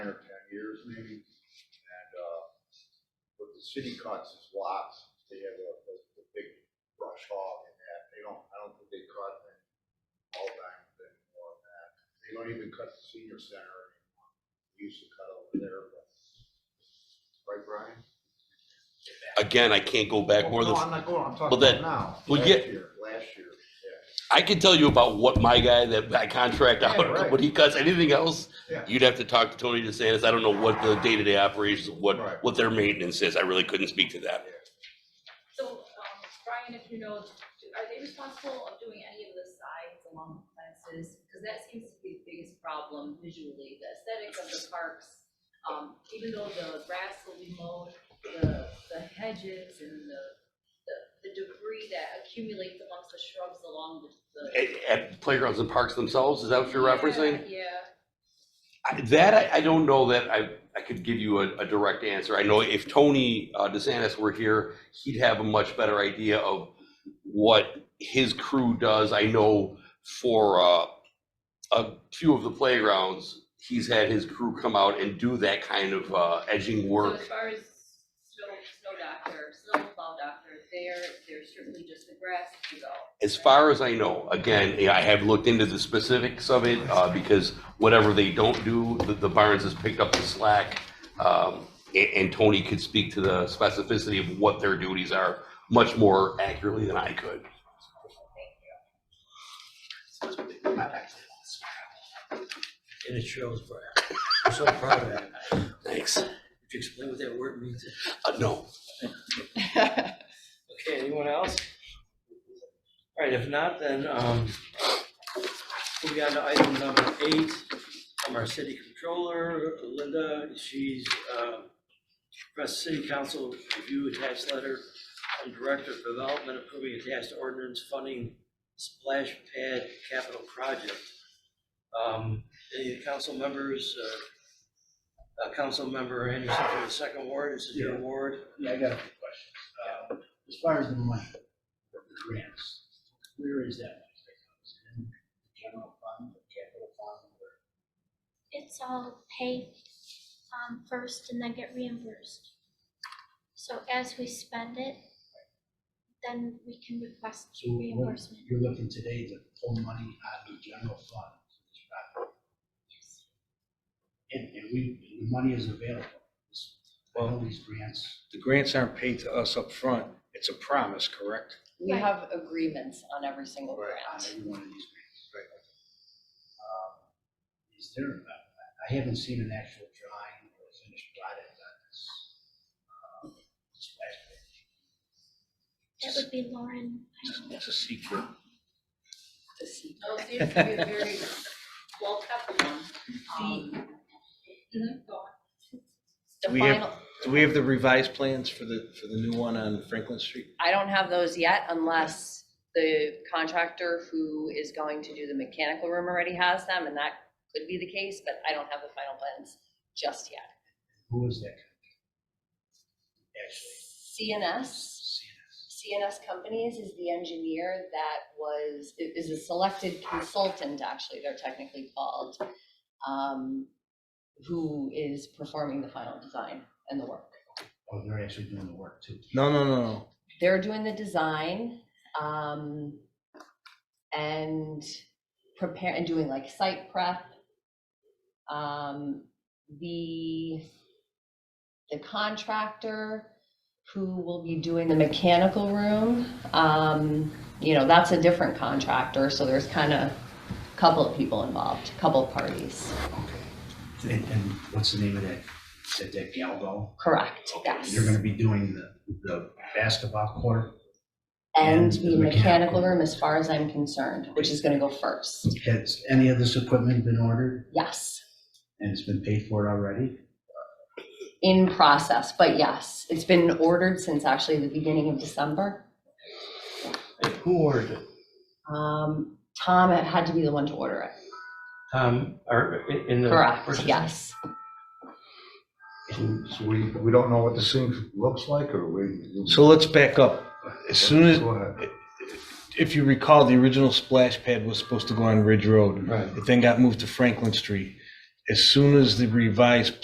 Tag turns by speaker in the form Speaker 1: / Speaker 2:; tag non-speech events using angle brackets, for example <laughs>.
Speaker 1: uh, city cuts his lots, they have a, the, the big brush hog and that, they don't, I don't think they cut it all back then or that. They don't even cut the senior center anymore, they used to cut over there, but, right, Brian?
Speaker 2: Again, I can't go back more than,
Speaker 1: No, I'm not going, I'm talking
Speaker 2: Well, then,
Speaker 1: about now,
Speaker 2: well,
Speaker 1: last
Speaker 2: yeah.
Speaker 1: year, last year, yeah,
Speaker 2: I can tell you about what my guy that I contract
Speaker 1: Yeah,
Speaker 2: out,
Speaker 1: right.
Speaker 2: what he cuts, anything else,
Speaker 1: Yeah.
Speaker 2: you'd have to talk to Tony DeSantis. I don't know what the day-to-day operations, what,
Speaker 1: Right.
Speaker 2: what their maintenance is. I really couldn't speak to that.
Speaker 3: So, um, Brian, if you know, do- are they responsible of doing any of the sides along the fences? Because that seems to be the biggest problem visually, the aesthetics of the parks. Um, even though the grass will be mowed, the, the hedges and the, the, the debris that accumulates amongst the shrubs along the. the-
Speaker 2: At, at playgrounds and parks themselves, is that what you're
Speaker 3: Yeah,
Speaker 2: referencing?
Speaker 3: Yeah.
Speaker 2: I- That I, I don't know that I, I could give you a, a direct answer. I know if Tony uh, DeSantis were here, he'd have a much better idea of what his crew does. I know for uh, a few of the playgrounds, he's had his crew come out and do that kind of uh, edging
Speaker 3: So as
Speaker 2: work.
Speaker 3: far as snow, snow doctor, snow plow doctor, there, there's certainly just the grass to go.
Speaker 2: As far as I know, again, yeah, I have looked into the specifics of it uh, because whatever they don't do, the, the Barnes has picked up the slack. Um, and, and Tony could speak to the specificity of what their duties are much more accurately than I could.
Speaker 4: And it shows, Brian. I'm so proud of that.
Speaker 2: Thanks. Uh,
Speaker 4: If you explain what that word means.
Speaker 2: no,
Speaker 4: Okay, anyone else? All right, if not, then, um, moving on to item number eight from our city controller, Linda, she's, uh, press city council review attached letter from director of development approving attached ordinance funding splash pad capital project. Um, any council members, uh, uh, council member Anderson from the second ward, this is your ward.
Speaker 5: Yeah, I got a few questions. Um, As far as the money, the grants, where is that? money that comes in? The General fund, the capital fund, or?
Speaker 6: it's all paid um, first and then get reimbursed. So as we spend it, then we can request
Speaker 5: So what,
Speaker 6: reimbursement.
Speaker 5: you're looking today to pull money out of the general fund. for this project.
Speaker 6: Yes.
Speaker 5: And, and we, the money is available. This- All these grants,
Speaker 7: The grants aren't paid to us up front. It's a promise, correct?
Speaker 8: We
Speaker 6: Right.
Speaker 8: have agreements on every single
Speaker 1: Right.
Speaker 5: on
Speaker 8: grant.
Speaker 5: every one of these grants. Um, Is there, I- I haven't seen an actual drawing or a finished product on this. um, splash pad.
Speaker 6: That would be Lauren.
Speaker 7: It's a secret.
Speaker 8: to see.
Speaker 3: Oh, it seems to be a very well kept
Speaker 8: <laughs>
Speaker 3: one. Um, mhm, go on.
Speaker 8: The
Speaker 7: We have-
Speaker 8: final,
Speaker 7: Do we have the revised plans for the, for the new one on Franklin Street?
Speaker 8: I don't have those yet unless the contractor who is going to do the mechanical room already has them, and that could be the case, but I don't have the final plans just yet.
Speaker 5: Who is that? Actually,
Speaker 8: CNS,
Speaker 5: CNS.
Speaker 8: CNS Companies is the engineer that was, i- is a selected consultant, actually, they're technically called, um, who is performing the final design and the work.
Speaker 5: Oh, they're actually doing the work too.
Speaker 7: No, no, no, no.
Speaker 8: they're doing the design, um, and prepare, and doing like site prep. Um, the, the contractor who will be doing the mechanical room, um, you know, that's a different contractor, so there's kind of a couple of people involved, couple of parties.
Speaker 5: Okay. And, and what's the name of that, is that that Galgo?
Speaker 8: Correct, yes.
Speaker 5: You're gonna be doing the, the basketball court,
Speaker 8: And
Speaker 5: and the
Speaker 8: the mechanical
Speaker 5: mechanical.
Speaker 8: room, as far as I'm concerned, which is gonna go first,
Speaker 5: has any of this equipment been ordered
Speaker 8: yes.
Speaker 5: and it's been paid for already?
Speaker 8: in process, but yes, it's been ordered since actually the beginning of December.
Speaker 4: Who ordered it?
Speaker 8: Um, Tom had to be the one to order it.
Speaker 4: Um, or in- in the.
Speaker 8: Correct,
Speaker 4: purchase-
Speaker 8: yes.
Speaker 1: So so we, we don't know what this thing looks like, or we?
Speaker 7: So let's back up. As soon as,
Speaker 1: Go ahead.
Speaker 7: if you recall, the original splash pad was supposed to go on Ridge Road.
Speaker 4: Right.
Speaker 7: It then got moved to Franklin Street. As soon as the revised